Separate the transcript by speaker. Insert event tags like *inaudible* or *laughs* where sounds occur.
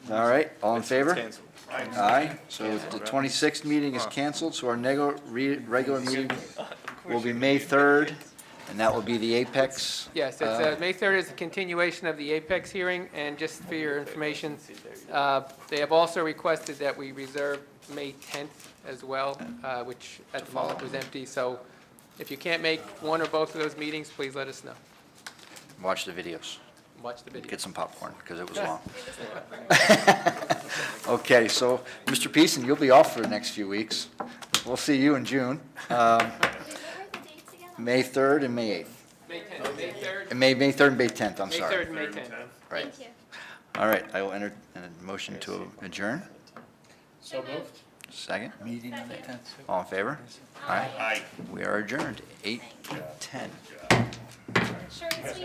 Speaker 1: All right, all in favor?
Speaker 2: Cancel.
Speaker 1: Aye, so the twenty-sixth meeting is canceled, so our nego, re, regular meeting will be May third, and that will be the Apex.
Speaker 3: Yes, it's, uh, May 3rd is a continuation of the Apex hearing, and just for your information, uh, they have also requested that we reserve May 10th as well, uh, which at the moment was empty, so if you can't make one or both of those meetings, please let us know.
Speaker 1: Watch the videos,
Speaker 3: Watch the video.
Speaker 1: get some popcorn, because it was long. *laughs* Okay, so, Mr. Peason, you'll be off for the next few weeks. We'll see you in June, um,
Speaker 4: What were the dates again?
Speaker 1: May third and May eighth,
Speaker 3: May 10th, May 3rd,
Speaker 1: and May, May third and May tenth, I'm
Speaker 3: May
Speaker 1: sorry.
Speaker 3: 3rd, and May 10th.
Speaker 1: Right,
Speaker 4: Thank you.
Speaker 1: all right, I will enter a motion to adjourn,
Speaker 4: So moved.
Speaker 1: second? All in favor? Aye,
Speaker 2: Aye.
Speaker 1: we are adjourned, eight, ten.
Speaker 4: Short and sweet.